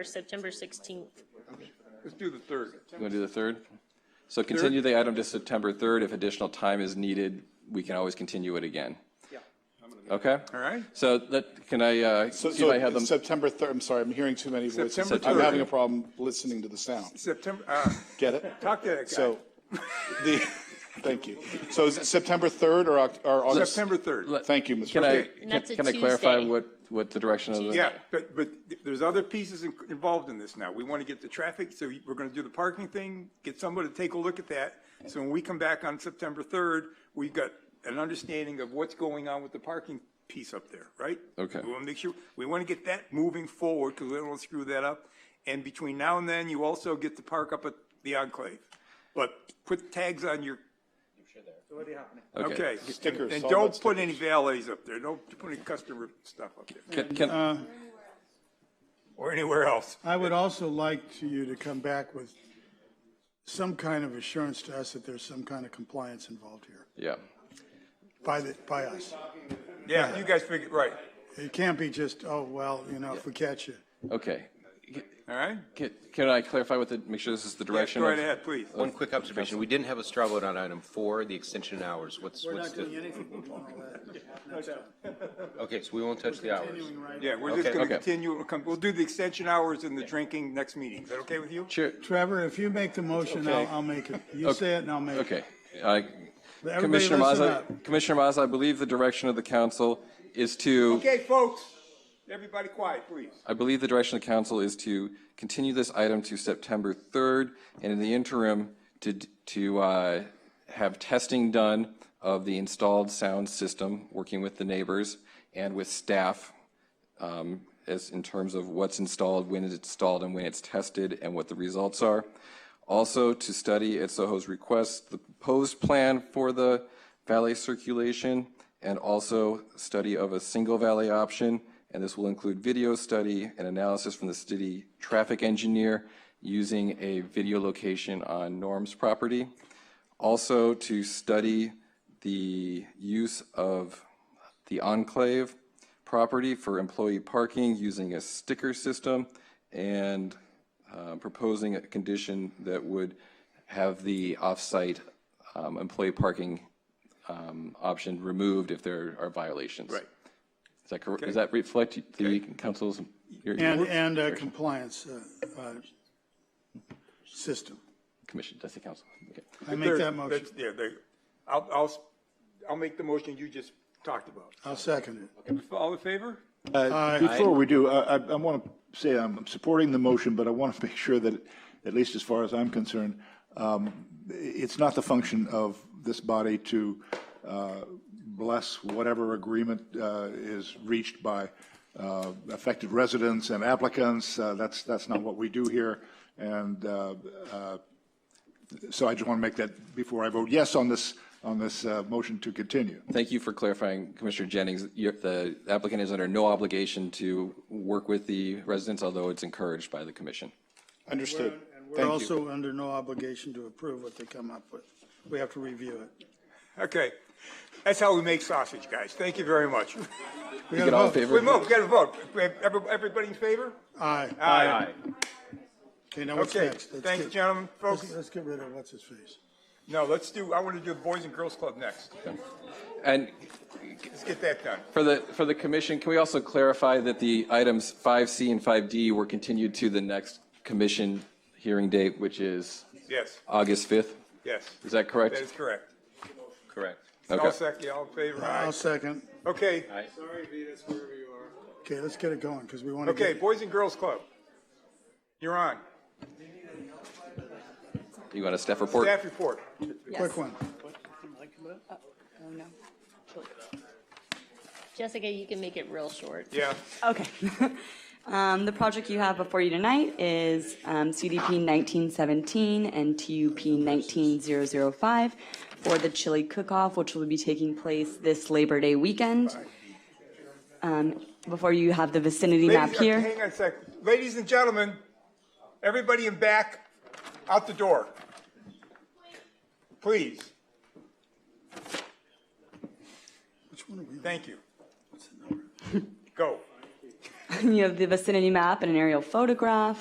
or September 16th. Let's do the third. You want to do the 3rd? So continue the item to September 3rd. If additional time is needed, we can always continue it again. Yeah. Okay? All right. So that, can I, uh, So, see if I have so them? September 3rd, I'm sorry, I'm hearing too many voices. September I'm 3rd. having a problem listening to the sound. September, uh, Get it? talk to that guy. So, the, thank you. So is it September 3rd or Oct- or August? September 3rd. Thank you, Mr. Can I, President. And that's a can I clarify Tuesday. what, what the direction of the? Yeah, but, but there's other pieces in- involved in this now. We want to get the traffic, so we're going to do the parking thing, get somebody to take a look at that. So when we come back on September 3rd, we've got an understanding of what's going on with the parking piece up there, right? Okay. We want to make sure, we want to get that moving forward because we don't want to screw that up. And between now and then, you also get to park up at the enclave. But put tags on your Okay. Stickers, And all don't about put any valets up there. Don't put any customer stuff up there Can, can, or anywhere else. I would also like to you to come back with some kind of assurance to us that there's some kind of compliance involved here yeah. by the, by us. Yeah, you guys figure, right. It can't be just, oh, well, you know, if we catch you. Okay. All right? Can, can I clarify what the, make sure this is the Yes, direction? Go of- right ahead, please. One quick observation, we didn't have a straw vote on item four, the extension hours. What's, what's the, anything on all that. okay, so we won't touch the hours. Yeah, we're just Okay. going to Okay. continue. We'll come- We'll do the extension hours and the drinking next meeting. Is that okay with you? Chair, Trevor, if you make the motion, I'll, Okay. I'll make it. You say it and I'll make it. okay. I- Everybody Commissioner listen Mazza, up. Commissioner Mazza, I believe the direction of the council is to. Okay, folks, everybody quiet, please. I believe the direction of council is to continue this item to September 3rd, and in the interim, to, to uh, have testing done of the installed sound system, working with the neighbors and with staff, um, as in terms of what's installed, when it's installed, and when it's tested, and what the results are. Also, to study at Soho's request, the proposed plan for the valet circulation, and also study of a single valet option, and this will include video study and analysis from the city traffic engineer using a video location on Norm's property. Also, to study the use of the enclave property for employee parking using a sticker system and uh, proposing a condition that would have the off-site um, employee parking um, option removed if there are violations. Right. Is that correct? Does that reflect the council's? your- And, your and a compliance, uh, uh, system. Commission, that's the council. Okay. I make that Third, motion. that's- Yeah, there, I'll, I'll, I'll make the motion you just talked about. I'll second it. All in favor? Uh, Before we do, I, I- I want to say I'm supporting the motion, but I want to make sure that, at least as far as I'm concerned, um, it's not the function of this body to uh, bless whatever agreement uh, is reached by uh, affected residents and applicants. Uh, That's, that's not what we do here. And uh, uh, so I just want to make that, before I vote yes on this, on this uh, motion to continue. Thank you for clarifying, Commissioner Jennings. Your- The applicant is under no obligation to work with the residents, although it's encouraged by the commission. Understood. We're Thank you. also under no obligation to approve what they come up with. We have to review it. Okay. That's how we make sausage, guys. Thank you very much. We You gotta get all in vote. favor? We move, we got a vote. Every- Everybody in favor? Aye. Aye. Okay, now what's Okay, next? Let's thanks, get- gentlemen, folks. Let's, let's get rid of what's his face. No, let's do, I want to do the Boys and Girls Club next. And Let's get that done. For the, for the commission, can we also clarify that the items 5C and 5D were continued to the next commission hearing date, which is Yes, August 5th? yes. Is that correct? That is correct. Correct. All Okay. second, all in favor? I'll Aye. second. Okay, Okay, let's get it going, because we want to okay, get, Boys and Girls Club. You're on. You want a staff report? Staff report. quick one. Oh, no. Jessica, you can make it real short. Yeah, Okay. Um, The project you have before you tonight is um, CDP 1917 and TUP 19005 for the chili cook-off, which will be taking place this Labor Day weekend. Um, Before you have the vicinity map Ladies- here. Hang on a sec. Ladies and gentlemen, everybody in back, out the door. Please, Which one are we on? thank you. Go. You have the vicinity map and an aerial photograph.